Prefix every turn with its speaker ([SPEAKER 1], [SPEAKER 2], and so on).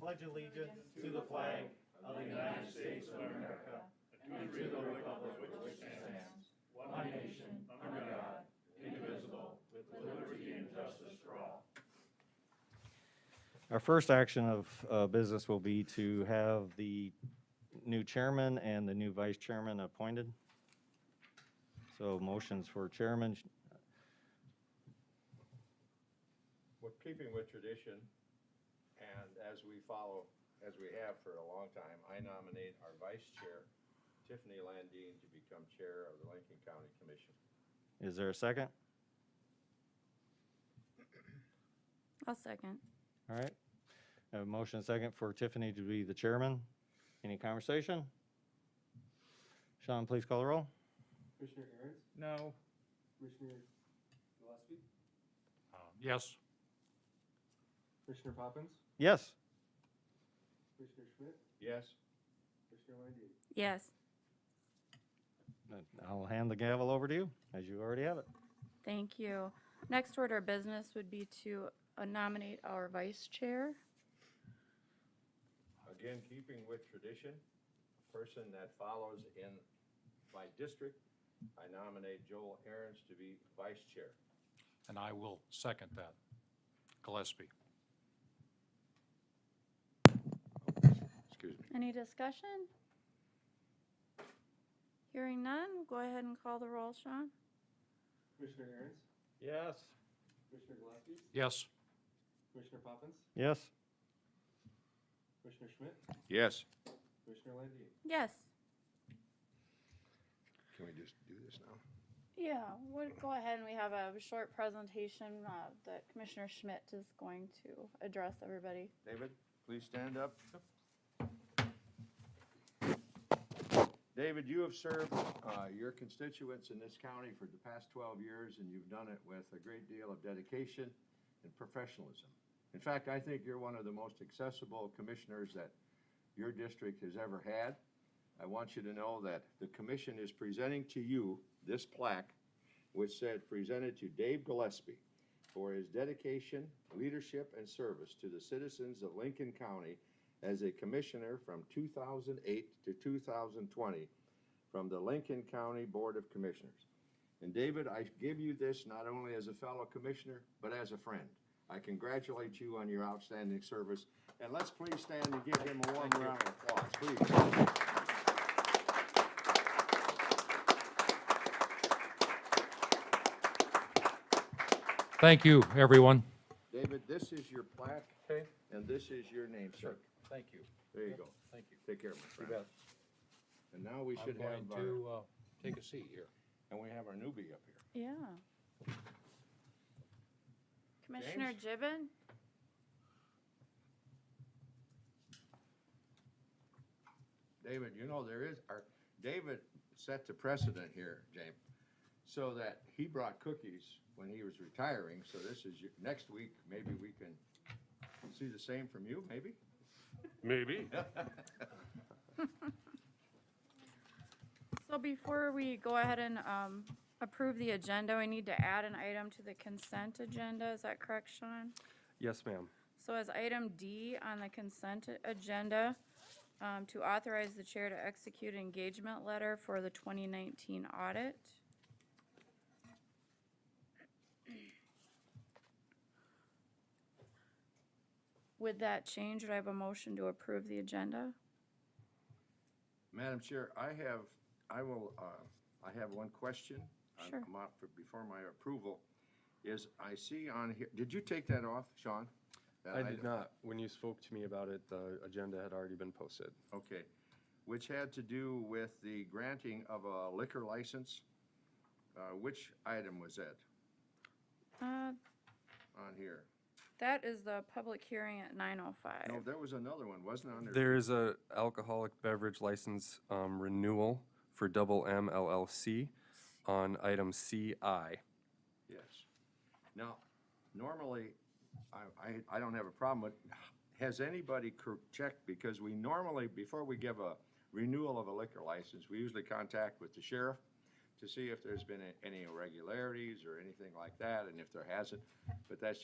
[SPEAKER 1] Pledge allegiance to the flag of the United States of America and to the republic which stands, one nation, under God, indivisible, with liberty and justice for all.
[SPEAKER 2] Our first action of uh, business will be to have the new chairman and the new vice chairman appointed. So motions for chairman,
[SPEAKER 3] We're keeping with tradition, and as we follow, as we have for a long time, I nominate our vice chair, Tiffany Landine, to become chair of the Lincoln County Commission.
[SPEAKER 2] is there a second?
[SPEAKER 4] I'll second.
[SPEAKER 2] All right. Have a motion and second for Tiffany to be the chairman. Any conversation? Sean, please call the roll.
[SPEAKER 5] Commissioner Aaron's,
[SPEAKER 1] No.
[SPEAKER 5] Commissioner Gillespie,
[SPEAKER 6] Yes.
[SPEAKER 5] Commissioner Poppins,
[SPEAKER 2] Yes.
[SPEAKER 5] Commissioner Schmidt,
[SPEAKER 3] Yes,
[SPEAKER 5] Commissioner Landine.
[SPEAKER 4] Yes,
[SPEAKER 2] I'll hand the gavel over to you, as you already have it.
[SPEAKER 4] thank you. Next order of business would be to uh, nominate our vice chair.
[SPEAKER 3] again, keeping with tradition, a person that follows in my district, I nominate Joel Ahrens to be vice chair.
[SPEAKER 6] And I will second that. Gillespie.
[SPEAKER 3] Excuse me.
[SPEAKER 4] Any discussion? Hearing none, go ahead and call the roll, Sean.
[SPEAKER 5] Commissioner Aaron's,
[SPEAKER 2] Yes.
[SPEAKER 5] Commissioner Gillespie,
[SPEAKER 6] Yes.
[SPEAKER 5] Commissioner Poppins,
[SPEAKER 2] Yes.
[SPEAKER 5] Commissioner Schmidt,
[SPEAKER 3] Yes.
[SPEAKER 5] Commissioner Landine.
[SPEAKER 4] Yes.
[SPEAKER 3] Can we just do this now?
[SPEAKER 4] Yeah, we'll go ahead and we have a short presentation uh, that Commissioner Schmidt is going to address everybody.
[SPEAKER 3] David, please stand up. David, you have served uh, your constituents in this county for the past 12 years, and you've done it with a great deal of dedication and professionalism. In fact, I think you're one of the most accessible commissioners that your district has ever had. I want you to know that the commission is presenting to you this plaque, which said, "Presented to Dave Gillespie." for his dedication, leadership, and service to the citizens of Lincoln County as a commissioner from 2008 to 2020 from the Lincoln County Board of Commissioners. And David, I give you this not only as a fellow commissioner, but as a friend. I congratulate you on your outstanding service, and let's please stand and give him a warm round of applause, please.
[SPEAKER 6] Thank you, everyone.
[SPEAKER 3] David, this is your plaque, and this is your name, sir.
[SPEAKER 6] Thank you.
[SPEAKER 3] There you go.
[SPEAKER 6] Thank you.
[SPEAKER 3] Take care, my friend. And now we
[SPEAKER 6] I'm
[SPEAKER 3] should
[SPEAKER 6] going
[SPEAKER 3] have our...
[SPEAKER 6] to uh, take a seat here.
[SPEAKER 3] And we have our newbie up here.
[SPEAKER 4] Yeah. Commissioner
[SPEAKER 3] James?
[SPEAKER 4] Gibbon?
[SPEAKER 3] David, you know, there is, our, David set the precedent here, James, so that he brought cookies when he was retiring, so this is, your- next week, maybe we can see the same from you, maybe?
[SPEAKER 7] Maybe.
[SPEAKER 4] So before we go ahead and um, approve the agenda, we need to add an item to the consent agenda. Is that correct, Sean?
[SPEAKER 7] Yes, ma'am.
[SPEAKER 4] So as item D on the consent a- agenda, um, to authorize the chair to execute engagement letter for the 2019 audit. With that change, would I have a motion to approve the agenda?
[SPEAKER 3] Madam Chair, I have, I will, uh, I have one question. I'm-
[SPEAKER 4] Sure.
[SPEAKER 3] I'm up for- Before my approval, is I see on here, did you take that off, Sean? That
[SPEAKER 7] I
[SPEAKER 3] item?
[SPEAKER 7] did not. When you spoke to me about it, the agenda had already been posted.
[SPEAKER 3] Okay, which had to do with the granting of a liquor license. Uh, Which item was that
[SPEAKER 4] Uh,
[SPEAKER 3] on here?
[SPEAKER 4] That is the public hearing at
[SPEAKER 3] No,
[SPEAKER 4] 9:05.
[SPEAKER 3] there was another one, wasn't on there?
[SPEAKER 7] There is a alcoholic beverage license um, renewal for Double M LLC on item CI.
[SPEAKER 3] Yes. Now, normally, I, I, I don't have a problem with, has anybody cor- checked? Because we normally, before we give a renewal of a liquor license, we usually contact with the sheriff to see if there's been a- any irregularities or anything like that, and if there hasn't, but that's